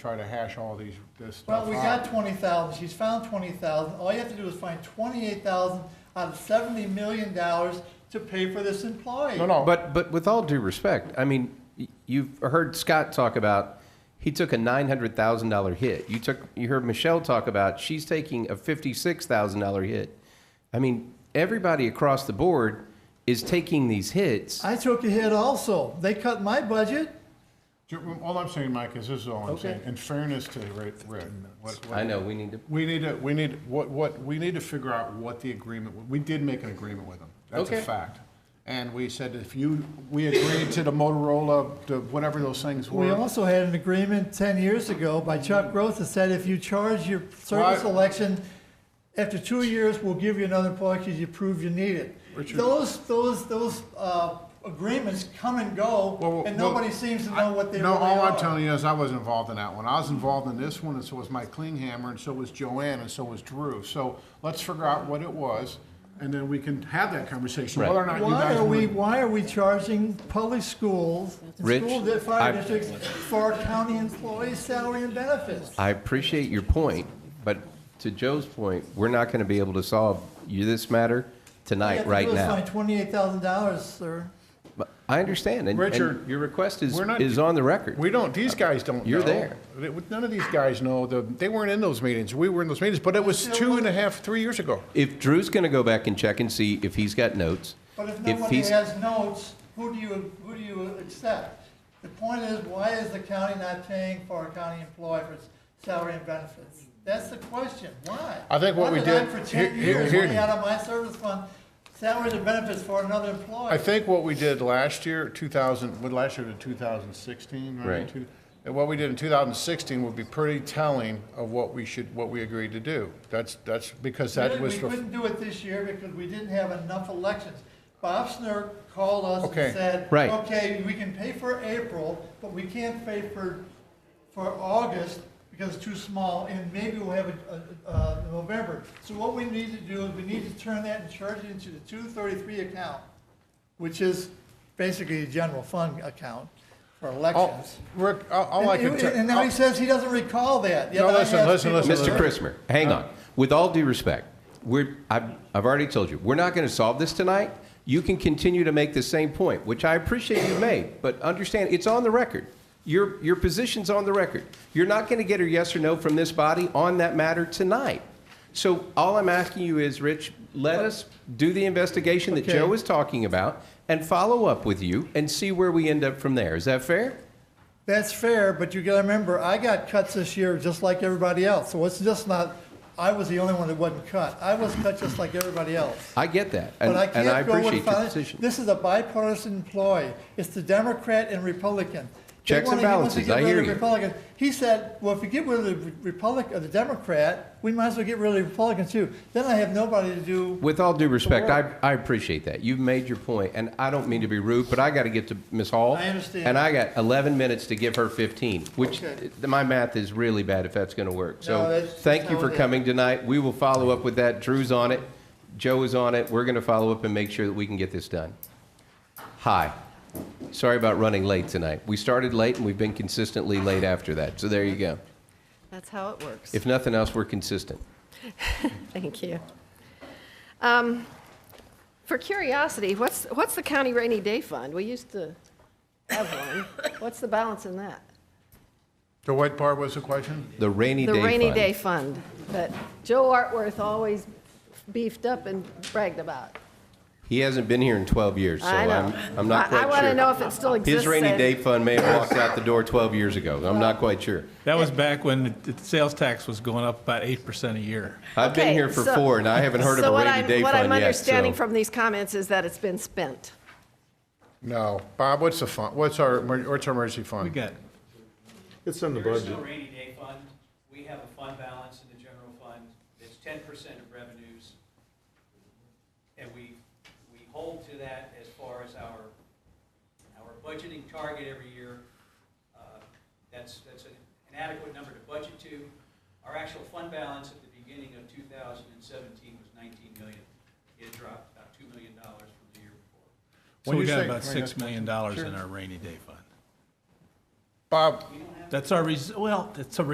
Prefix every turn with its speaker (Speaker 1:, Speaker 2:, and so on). Speaker 1: try to hash all these, this stuff
Speaker 2: Well, we
Speaker 1: out.
Speaker 2: got twenty thousand, she's found twenty thousand, all you have to do is find twenty-eight thousand out of seventy million dollars to pay for this employee.
Speaker 1: No, no,
Speaker 3: But, but with all due respect, I mean, y- you've heard Scott talk about, he took a nine hundred thousand dollar hit. You took, you heard Michelle talk about, she's taking a fifty-six thousand dollar hit. I mean, everybody across the board is taking these hits.
Speaker 2: I took a hit also, they cut my budget,
Speaker 1: Ju- all I'm saying, Mike, is this is all I'm
Speaker 2: Okay.
Speaker 1: saying, in fairness to Rick, Rick, what- what-
Speaker 3: I know, we need to,
Speaker 1: We need to, we need, what, what, we need to figure out what the agreement, we did make an agreement with them. That's a
Speaker 3: Okay.
Speaker 1: fact. And we said if you, we agreed to the Motorola, the, whatever those things
Speaker 2: we
Speaker 1: were.
Speaker 2: also had an agreement ten years ago by Chuck Gross that said if you charge your service
Speaker 1: Mm. Right.
Speaker 2: election, after two years, we'll give you another employee because you prove you need it.
Speaker 1: Richard.
Speaker 2: Those, those, those, uh, agreements come and
Speaker 1: Well,
Speaker 2: go,
Speaker 1: well,
Speaker 2: and
Speaker 1: well,
Speaker 2: nobody seems to know what they
Speaker 1: No,
Speaker 2: really
Speaker 1: all I'm
Speaker 2: are.
Speaker 1: telling you is I wasn't involved in that one. I was involved in this one, and so was Mike Klinghammer, and so was Joanne, and so was Drew. So let's figure out what it was, and then we can have that conversation, whether or not you
Speaker 2: Why
Speaker 1: guys
Speaker 2: are we,
Speaker 1: want.
Speaker 2: why are we charging public schools,
Speaker 3: Rich,
Speaker 2: school di- fire
Speaker 3: I-
Speaker 2: districts for our county employees' salary and benefits?
Speaker 3: I appreciate your point, but to Joe's point, we're not gonna be able to solve you this matter tonight, right
Speaker 2: You have
Speaker 3: now.
Speaker 2: to twenty-eight thousand dollars, sir.
Speaker 3: But I understand, and,
Speaker 1: Richard,
Speaker 3: and your request is,
Speaker 1: we're not-
Speaker 3: is on the record.
Speaker 1: We don't, these guys don't know.
Speaker 3: You're there.
Speaker 1: They- None of these guys know, the- they weren't in those meetings. We were in those meetings, but it was two and a half, three years ago.
Speaker 3: If Drew's going to go back and check and see if he's got notes,
Speaker 2: But if nobody
Speaker 3: he's,
Speaker 2: has notes, who do you, who do you accept? The point is, why is the county not paying for a county employee for its salary and benefits? That's the question, why?
Speaker 1: I think what
Speaker 2: Why
Speaker 1: we
Speaker 2: I,
Speaker 1: did-
Speaker 2: for
Speaker 1: here-
Speaker 2: ten
Speaker 1: here-
Speaker 2: years,
Speaker 1: here-
Speaker 2: money out of my service fund, salaries and benefits for another employee?
Speaker 1: I think what we did last year, 2000, what last year to 2016, right?
Speaker 3: Right.
Speaker 1: Two- And what we did in 2016 would be pretty telling of what we should, what we agreed to do. That's, that's, because that
Speaker 2: We
Speaker 1: was, the-
Speaker 2: couldn't do it this year because we didn't have enough elections. Bob Snur called us
Speaker 1: Okay.
Speaker 2: and said,
Speaker 3: Right.
Speaker 2: okay, we can pay for April, but we can't pay for, for August because it's too small, and maybe we'll have it, uh, uh, November. So what we need to do is we need to turn that and charge it into the two thirty-three account, which is basically a general fund account for
Speaker 1: all,
Speaker 2: elections.
Speaker 1: Rick, all- all I
Speaker 2: And-
Speaker 1: can tell.
Speaker 2: And now he says he doesn't recall that. yet
Speaker 1: No,
Speaker 2: I
Speaker 1: listen,
Speaker 2: asked
Speaker 1: listen,
Speaker 2: people-
Speaker 1: listen,
Speaker 3: Mr. Christopher, hang on. With all due respect, we're, I've, I've already told you, we're not going to solve this tonight. You can continue to make the same point, which I appreciate you made, but understand it's on the record. Your, your position's on the record. You're not going to get a yes or no from this body on that matter tonight. So all I'm asking you is, Rich, let us do the investigation that
Speaker 2: Okay.
Speaker 3: Joe was talking about and follow up with you and see where we end up from there. Is that fair?
Speaker 2: That's fair, but you gotta remember, I got cuts this year just like everybody else, so it's just not, I was the only one that wasn't cut. I was cut just like everybody else.
Speaker 3: I get that, and
Speaker 2: But I
Speaker 3: and I
Speaker 2: can't go with
Speaker 3: appreciate your
Speaker 2: finance.
Speaker 3: position.
Speaker 2: This is a bipartisan employee. It's the Democrat and Republican. They
Speaker 3: Checks and
Speaker 2: wanna- he wants to
Speaker 3: balances,
Speaker 2: get
Speaker 3: I
Speaker 2: rid of
Speaker 3: hear
Speaker 2: the
Speaker 3: you.
Speaker 2: Republican. He said, well, if we get rid of the Republic, of the Democrat, we might as well get rid of the Republican too. Then I have nobody to do,
Speaker 3: With all due respect, I,
Speaker 2: work.
Speaker 3: I appreciate that. You've made your point, and I don't mean to be rude, but I got to get to Ms. Hall.
Speaker 2: I understand.
Speaker 3: And I got 11 minutes to give her 15, which,
Speaker 2: Okay.
Speaker 3: uh, my math is really bad if that's going to
Speaker 2: No,
Speaker 3: work. So,
Speaker 2: that's-
Speaker 3: thank you
Speaker 2: no,
Speaker 3: for
Speaker 2: that-
Speaker 3: coming tonight. We will follow up with that. Drew's on it. Joe is on it. We're going to follow up and make sure that we can get this done. Hi. Sorry about running late tonight. We started late, and we've been consistently late after that. So there you go.
Speaker 4: That's how it works.
Speaker 3: If nothing else, we're consistent.
Speaker 4: Thank you. Um, For curiosity, what's, what's the county rainy day fund? We used to have one. What's the balance in that?
Speaker 1: The white part was the question?
Speaker 3: The rainy day
Speaker 4: The
Speaker 3: fund.
Speaker 4: rainy day fund that Joe Artworth always beefed up and bragged about.
Speaker 3: He hasn't been here in 12 years, so
Speaker 4: I know.
Speaker 3: I'm, I'm not quite
Speaker 4: I-
Speaker 3: sure.
Speaker 4: I want to know if it still exists.
Speaker 3: His rainy
Speaker 4: and-
Speaker 3: day fund may have walked out the door 12 years ago. I'm not quite sure.
Speaker 5: That was back when the the sales tax was going up about 8% a year.
Speaker 3: I've been
Speaker 4: Okay,
Speaker 3: here for
Speaker 4: so-
Speaker 3: four, and I haven't heard of a
Speaker 4: So what
Speaker 3: rainy
Speaker 4: I'm-
Speaker 3: day
Speaker 4: What I'm
Speaker 3: fund yet,
Speaker 4: understanding
Speaker 3: so.
Speaker 4: from these comments is that it's been spent.
Speaker 1: No. Bob, what's the fund, what's our, emer- what's our emergency
Speaker 5: We
Speaker 1: fund?
Speaker 5: got,
Speaker 6: It's in the
Speaker 7: There is no
Speaker 6: budget.
Speaker 7: rainy day fund. We have a fund balance in the general fund that's ten percent of revenues. And we, we hold to that as far as our, our budgeting target every year. Uh, That's, that's an adequate number to budget to. Our actual fund balance at the beginning of two thousand and seventeen was nineteen million. It dropped about two million dollars from the year before.
Speaker 5: so
Speaker 1: When
Speaker 5: we
Speaker 1: you
Speaker 5: got
Speaker 1: say-
Speaker 5: about
Speaker 1: Sorry,
Speaker 5: $6 million in our rainy day fund.
Speaker 1: Bob,
Speaker 5: That's our, res- well, it's a